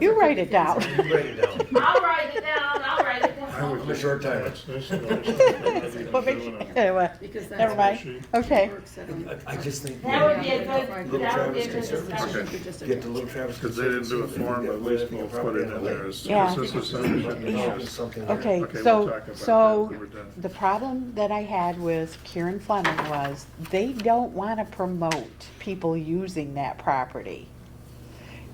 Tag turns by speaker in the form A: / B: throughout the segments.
A: You write it down.
B: Write it down.
C: I'll write it down, I'll write it
B: I
C: down.
B: was a short time.
D: That's, that's the only thing
A: But
D: I've
A: make
D: been
A: sure,
D: doing it.
A: anyway,
E: Because that's.
A: never
E: what
A: mind,
D: She-
A: okay.
E: she works at on-
B: I- I just think.
C: That would be a good,
B: Little
C: that would be a
B: Travis
C: good
B: Conservancy.
C: discussion.
E: She could just-
B: Get the Little Travis.
D: Because they didn't do a form, but at least we'll put it in there as
A: Yeah.
D: consensus and issues.
B: Something.
A: Okay,
D: Okay, we'll
A: so,
D: talk about
A: so
D: that when we're done.
A: the problem that I had with Kieran Fleming was they don't want to promote people using that property.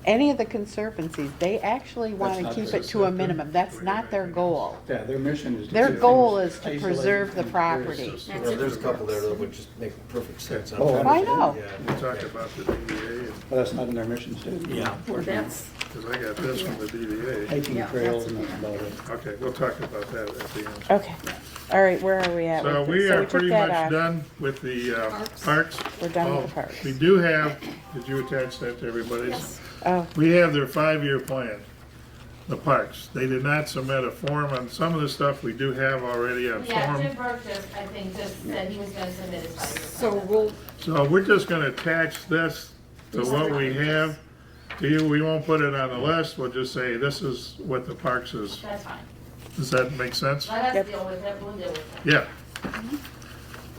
A: Any of the conservancies, they actually want to
F: not
A: keep
F: their-
A: it to a minimum. That's not their goal.
F: Yeah, their mission is. to
A: Their
F: keep
A: goal
F: things
A: is to
F: isolated
A: preserve the
F: and
A: property.
F: clear.
E: That's
B: Well,
E: it.
B: there's a couple there that would just make perfect sense.
F: Oh,
B: I'm-
F: I
A: know.
B: Yeah.
D: We'll talk about the DDA, and-
F: But that's not in their mission statement.
B: Yeah.
E: Well, that's,
D: because I got this from the DDA.
F: Hiking
E: Yeah,
F: trails
E: that's-
F: and that's about it.
D: Okay, we'll talk about that at the end.
A: Okay, all right, where are Oh, we at?
D: So
A: with this?
D: we are
A: took
D: pretty
A: that
D: much
A: off.
D: done with the uh, parks.
A: We're done with the
D: Oh,
A: parks.
D: We do have, did you attach that to everybody's?
A: Oh,
D: We have their five-year plan, the parks. They did not submit a form on some of the stuff we do have already on
C: Yeah, Jim
D: form.
C: Burke just, I think, just said he was gonna submit his five-year
E: so
C: plan.
E: we'll,
D: So we're just gonna attach this to what we have. To you, we won't put it on the list, we'll just say this is what the parks is.
C: That's fine.
D: Does that make sense?
C: Let
A: Yep.
C: us deal with it, we'll deal with it.
D: Yeah.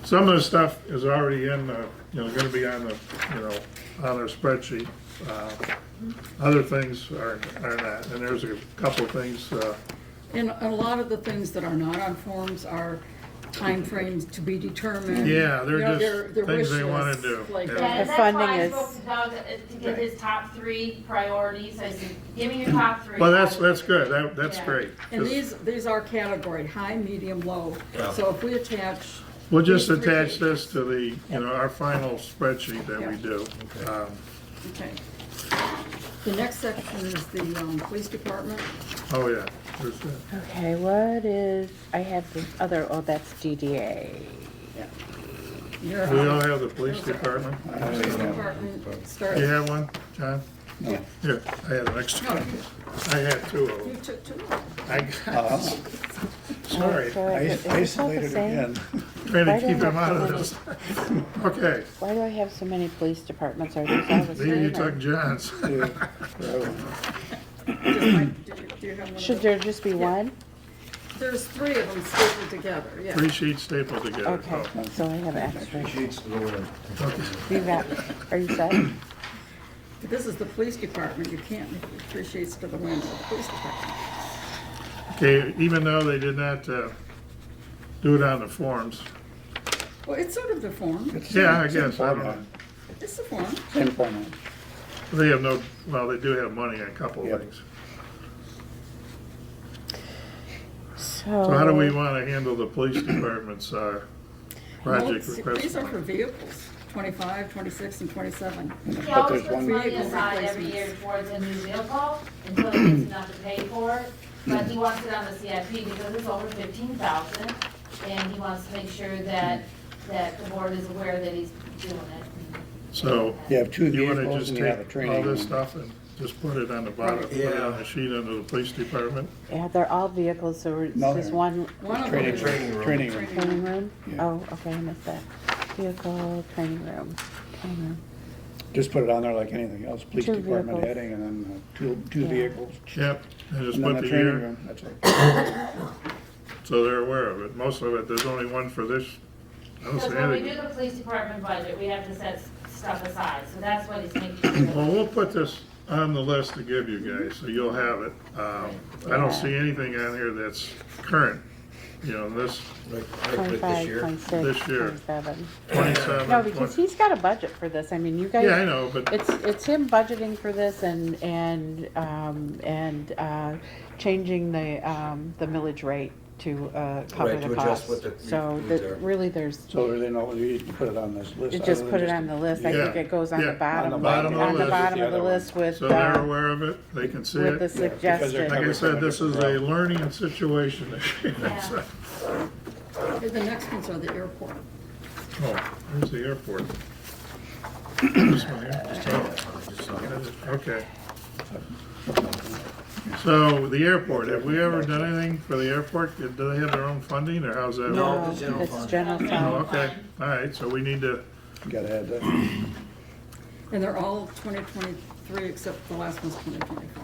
D: Some of the stuff is already in the, you know, gonna be on the, you know, on our spreadsheet. Uh, Other things are, are not, and there's a couple of things, uh,
E: and a lot of the things that are not on forms are timeframes to be determined.
D: Yeah,
E: You
D: they're
E: know,
D: just
E: their- their
D: things
E: wish
D: they wanna
E: lists,
D: do,
E: Like,
D: yeah.
C: Yeah,
A: The
C: and that's
A: funding
C: why I
A: is-
C: spoke to Doug uh, to get his top three priorities. I said, give me your top three.
D: well, that's, that's good, that, that's
C: Yeah.
D: great.
E: and these, these are category, high, medium, low. So if we attach,
D: We'll just
E: these three
D: attach this to the, you know, our final spreadsheet that we
E: Yeah.
D: do. Um,
E: okay. The next section is the, um, police department.
D: Oh, yeah, there's that.
A: okay, what is, I have this other, oh, that's DDA.
E: Your,
D: Do we all
E: um,
D: have the police department?
E: police department starts.
D: You have one, John?
F: No.
D: Here, I had an extra,
E: No,
D: one. I had two of
E: you
D: them.
E: took two.
D: I
F: Uh,
D: got, sorry,
A: So I
F: I
A: could- is this all the
F: Isolated
A: same?
F: again.
D: trying
A: Why
D: to
A: do I
D: keep them
A: have
D: out of
A: to
D: this. Okay,
A: Why do I have so many police departments? Are these all the
D: maybe you
A: same? or-
D: took John's.
F: Yeah, forever.
E: Just like, do you- do you have one of
A: Should
E: those?
A: there just be one?
E: There's three of them stapled together, yeah.
D: Three sheets stapled together.
A: Okay, so I have extra.
B: Sheets to go in.
A: You got, are you set?
E: This is the police department, you can't appreciate to the wind of the police department.
D: Okay, even though they did not uh, do it on the forms,
E: Well, it's sort of the form,
D: Yeah, I
F: Same
D: guess, I don't know.
F: format.
E: it's the form.
F: Same format.
D: They have no, well, they do have money on a couple of
F: Yep.
D: things.
A: So.
D: So how do we want to handle the police department's uh, project
E: Well, it's- These
D: request?
E: are for vehicles, 25, 26, and 27.
C: He
F: But
C: always
F: there's
C: puts
F: one,
C: money aside every year towards a new vehicle until he gets enough to pay for it. But he wants it on the CIP because it's over fifteen thousand, and he wants to make sure that, that the board is aware that he's doing it.
D: So
F: you have two
D: you want to
F: vehicles
D: just
F: and you have a
D: take all
F: training.
D: this stuff and just put it on the bottom, put it on the
B: Yeah.
D: sheet under the police department?
A: Yeah, they're all vehicles, so it's
F: No,
A: just
F: they're-
A: one
E: One of them
F: Training,
E: is
B: Training room.
F: training room.
A: training room?
F: Yeah.
A: Oh, okay, I missed that. Vehicle, training room, training room.
F: Just put it on there like anything else, police
A: Two
F: department
A: vehicles.
F: heading and then uh, two, two
A: Yeah.
F: vehicles.
D: Yep, and just
F: And then
D: put
F: the
D: the
F: training
D: year,
F: room, that's it.
D: so they're aware of it. Most of it, there's only one for this. I don't see
C: Because when we do
D: anything.
C: the police department budget, we have to set s- stuff aside, so that's what he's making. sure that-
D: Well, we'll put this on the list to give you guys, so you'll have it. Um, I don't see anything on here that's current, you know, this
B: Like, I put it this
A: Twenty-five,
B: year.
A: twenty-six,
D: This year.
A: twenty-seven.
D: twenty-seven.
A: No, because
D: 20
A: he's got a budget for this. I mean, you guys.
D: Yeah, I know, but
A: It's, it's him budgeting for this and, and, um, and, uh, changing the, um, the millage rate to, uh, cover
B: Right, to
A: the
B: adjust what
A: cost.
B: the
A: So
B: needs
A: that,
B: are.
A: really, there's,
F: So they know, you need to put it on this list.
A: it just
F: other than
A: put it on the list. I think
D: Yeah,
A: it goes on
D: yeah,
A: the
D: on
A: bottom,
F: the
A: on
D: bottom of the
A: the
D: list.
A: bottom of
F: The
A: the
F: other one.
A: list with,
D: So they're
A: uh,
D: aware of it, they can see
A: with the
D: it.
F: Yeah, because they're
A: suggested.
D: Like I said, this is a
F: Yeah.
D: learning situation.
C: Yeah.
E: The next ones are the airport.
D: Oh, there's the airport. This one here, just oh, Okay. So the airport, have we ever done anything for the airport? Do they have their own funding or how's that?
B: No.
D: work?
B: the general
A: It's
B: fund.
A: general
D: Oh,
A: fund.
D: okay, all right, so we need to,
F: Gotta add that.
E: And they're all 2023 except the last one's 2024.